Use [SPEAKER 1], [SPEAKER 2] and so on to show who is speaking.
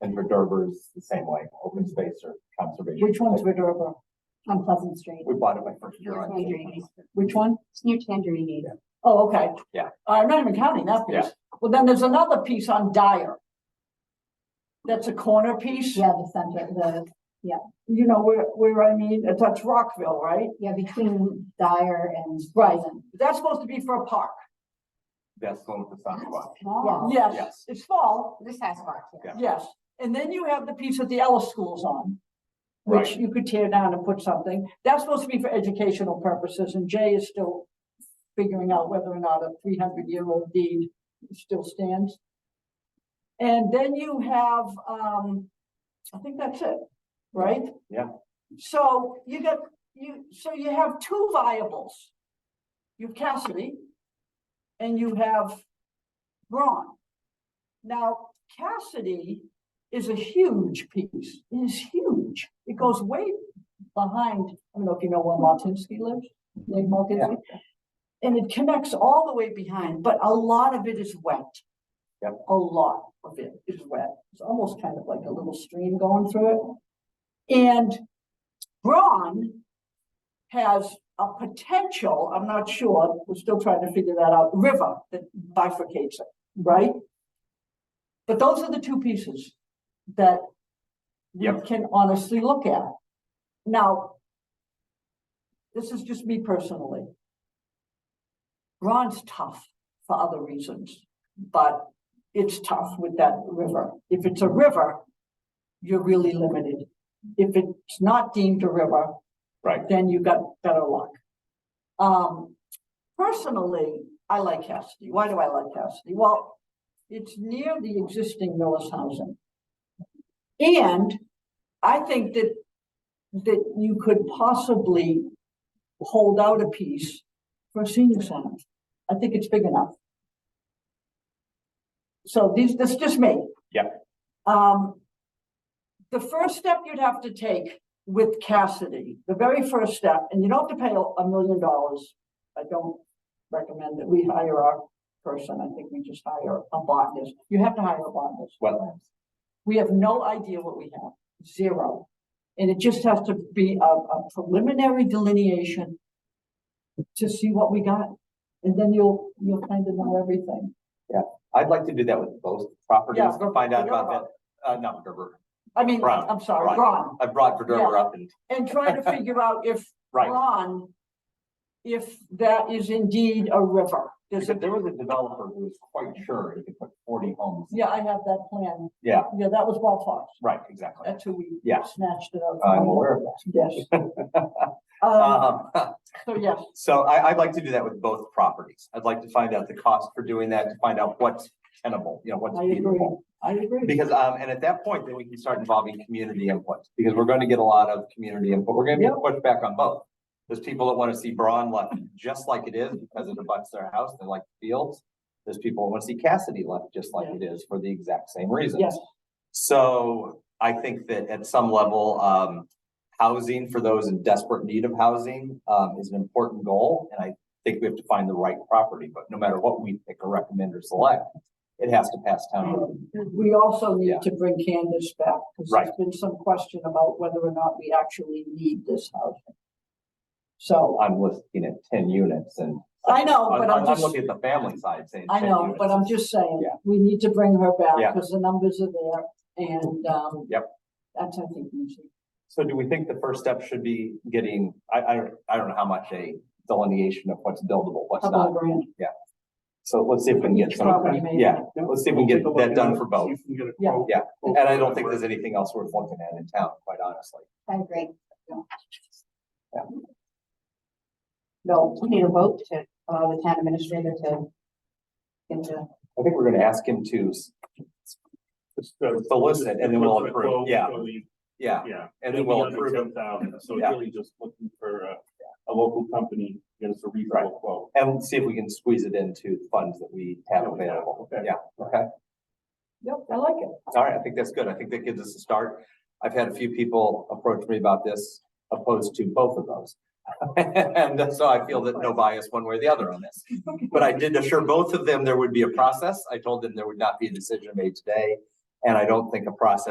[SPEAKER 1] and Redover is the same way, open space or conservation.
[SPEAKER 2] Which one's Redover?
[SPEAKER 3] on Pleasant Street.
[SPEAKER 1] We bought it my first year on.
[SPEAKER 3] Tangerini's.
[SPEAKER 2] Which one?
[SPEAKER 3] It's near Tangerini.
[SPEAKER 2] Oh, okay.
[SPEAKER 1] Yeah.
[SPEAKER 2] I'm not even counting that
[SPEAKER 1] Yeah.
[SPEAKER 2] piece. Well, then there's another piece on Dyer. That's a corner piece,
[SPEAKER 3] Yeah, the center, the,
[SPEAKER 2] you know, where, where I mean, Uh, that's Rockville, right?
[SPEAKER 3] yeah, between Dyer and
[SPEAKER 2] Right.
[SPEAKER 3] Pleasant.
[SPEAKER 2] That's supposed to be for a park.
[SPEAKER 1] That's the one with the sidewalk.
[SPEAKER 3] Wow.
[SPEAKER 2] Yes,
[SPEAKER 1] Yes.
[SPEAKER 2] it's fall,
[SPEAKER 3] The Sasquatch. yeah.
[SPEAKER 2] yes. And then you have the piece that the Ellis School's on. Which
[SPEAKER 1] Right.
[SPEAKER 2] you could tear down and put something. That's supposed to be for educational purposes and Jay is still figuring out whether or not a three hundred year old deed still stands. And then you have, um, I think that's it, right?
[SPEAKER 1] Yeah.
[SPEAKER 2] So you got, you, so you have two viables. You have Cassidy and you have Braun. Now Cassidy is a huge piece, It is huge. It goes way behind, I don't know if you know where Martinsky lives, Dave Martinsky. And it connects all the way behind, but a lot of it is wet.
[SPEAKER 1] Yep.
[SPEAKER 2] A lot of it is wet. It's almost kind of like a little stream going through it. And Braun has a potential, I'm not sure, we're still trying to figure that out, river that bifurcates it, right? But those are the two pieces that we
[SPEAKER 1] Yep.
[SPEAKER 2] can honestly look at. Now, this is just me personally. Ron's tough for other reasons, but it's tough with that river. If it's a river, you're really limited. If it's not deemed a river,
[SPEAKER 1] Right.
[SPEAKER 2] then you got better luck. Um, personally, I like Cassidy. Why do I like Cassidy? Well, it's near the existing Millis housing. And I think that, that you could possibly hold out a piece for a senior center. I think it's big enough. So these, this is just me.
[SPEAKER 1] Yeah.
[SPEAKER 2] Um, the first step you'd have to take with Cassidy, the very first step, and you don't have to pay a- a million dollars. I don't recommend that we hire our person. I think we just hire a botanist. You have to hire a botanist.
[SPEAKER 1] Wetlands.
[SPEAKER 2] We have no idea what we have, zero. And it just has to be a, a preliminary delineation to see what we got. And then you'll, you'll kind of know everything.
[SPEAKER 1] I'd like to do that with both properties,
[SPEAKER 2] Yeah,
[SPEAKER 1] find out about
[SPEAKER 2] Redover.
[SPEAKER 1] that, uh, not Redover.
[SPEAKER 2] I mean,
[SPEAKER 1] Ron,
[SPEAKER 2] I'm sorry,
[SPEAKER 1] Ron.
[SPEAKER 2] Ron,
[SPEAKER 1] I brought Redover up and,
[SPEAKER 2] and try to figure out if
[SPEAKER 1] right.
[SPEAKER 2] Ron, if that is indeed a river. There's a,
[SPEAKER 1] Because there was a developer who was quite sure he could put forty homes.
[SPEAKER 2] yeah, I have that plan.
[SPEAKER 1] Yeah.
[SPEAKER 2] Yeah, that was Walt Fox.
[SPEAKER 1] Right, exactly.
[SPEAKER 2] That's who we
[SPEAKER 1] Yeah. Uh,
[SPEAKER 2] snatched it out.
[SPEAKER 1] I'm
[SPEAKER 2] from.
[SPEAKER 1] aware of that.
[SPEAKER 2] Yes. Um,
[SPEAKER 1] Um,
[SPEAKER 2] so yes,
[SPEAKER 1] So I, I'd like to do that with both properties. I'd like to find out the cost for doing that, to find out what's tenable, you know, what's
[SPEAKER 2] I agree.
[SPEAKER 1] feasible.
[SPEAKER 2] I agree.
[SPEAKER 1] Because, um, and at that point, then we can start involving community input, because we're gonna get a lot of community input. We're gonna get pushback on both. There's people that wanna see Braun left just like it is because it abuts their house, they like the fields. There's people that wanna see Cassidy left just like it is for the exact same reasons.
[SPEAKER 2] Yes.
[SPEAKER 1] So I think that at some level, um, housing for those in desperate need of housing, um, is an important goal. And I think we have to find the right property, but no matter what we pick or recommend or select, it has to pass town
[SPEAKER 2] Mm-hmm.
[SPEAKER 1] meeting.
[SPEAKER 2] We also need
[SPEAKER 1] Um, Yeah.
[SPEAKER 2] to bring Candace back, because there's
[SPEAKER 1] Right.
[SPEAKER 2] been some question about whether or not we actually need this housing. So,
[SPEAKER 1] I'm looking at ten units and.
[SPEAKER 2] I know,
[SPEAKER 1] I'm-
[SPEAKER 2] but I'm
[SPEAKER 1] I'm
[SPEAKER 2] just,
[SPEAKER 1] looking at the family side saying.
[SPEAKER 2] I
[SPEAKER 1] 10
[SPEAKER 2] know, but
[SPEAKER 1] units
[SPEAKER 2] I'm
[SPEAKER 1] is-
[SPEAKER 2] just saying,
[SPEAKER 1] Yeah.
[SPEAKER 2] we need to bring her
[SPEAKER 1] Yeah.
[SPEAKER 2] back, because the numbers are there, and, um.
[SPEAKER 1] Yep.
[SPEAKER 2] That's, I think, we should-
[SPEAKER 1] So do we think the first step should be getting, I, I, don't- I don't know how much a delineation of what's buildable, what's
[SPEAKER 2] how about a
[SPEAKER 1] not.
[SPEAKER 2] grand?
[SPEAKER 1] So let's see if we can get
[SPEAKER 2] Each
[SPEAKER 1] some,
[SPEAKER 2] property, maybe.
[SPEAKER 1] yeah, let's see if we can get that done for both.
[SPEAKER 4] You can get a
[SPEAKER 2] Yeah.
[SPEAKER 4] quote.
[SPEAKER 1] Yeah, and I don't think there's anything else worth looking at in town, quite honestly.
[SPEAKER 3] I agree.
[SPEAKER 2] No,
[SPEAKER 3] We need a vote to allow the town administrator to into.
[SPEAKER 1] I think we're gonna ask him to, s-
[SPEAKER 4] Just, uh,
[SPEAKER 1] To listen, and then we'll
[SPEAKER 4] just a
[SPEAKER 1] approve,
[SPEAKER 4] quote,
[SPEAKER 1] yeah.
[SPEAKER 4] so we-
[SPEAKER 1] yeah,
[SPEAKER 4] Yeah.
[SPEAKER 1] and then we'll approve it.
[SPEAKER 4] Ten thousand, so
[SPEAKER 1] Yeah.
[SPEAKER 4] it's really just looking for a, a local company, get us a reasonable quote.
[SPEAKER 1] and see if we can squeeze it into funds that we have
[SPEAKER 4] Yeah, we have,
[SPEAKER 1] available.
[SPEAKER 4] okay.
[SPEAKER 1] Yeah, okay.
[SPEAKER 2] yep, I like it.
[SPEAKER 1] All right, I think that's good. I think that gives us a start. I've had a few people approach me about this opposed to both of those. And so I feel that no bias one way or the other on this. But I did assure both of them there would be a process. I told them there would not be a decision made today. And I don't think a process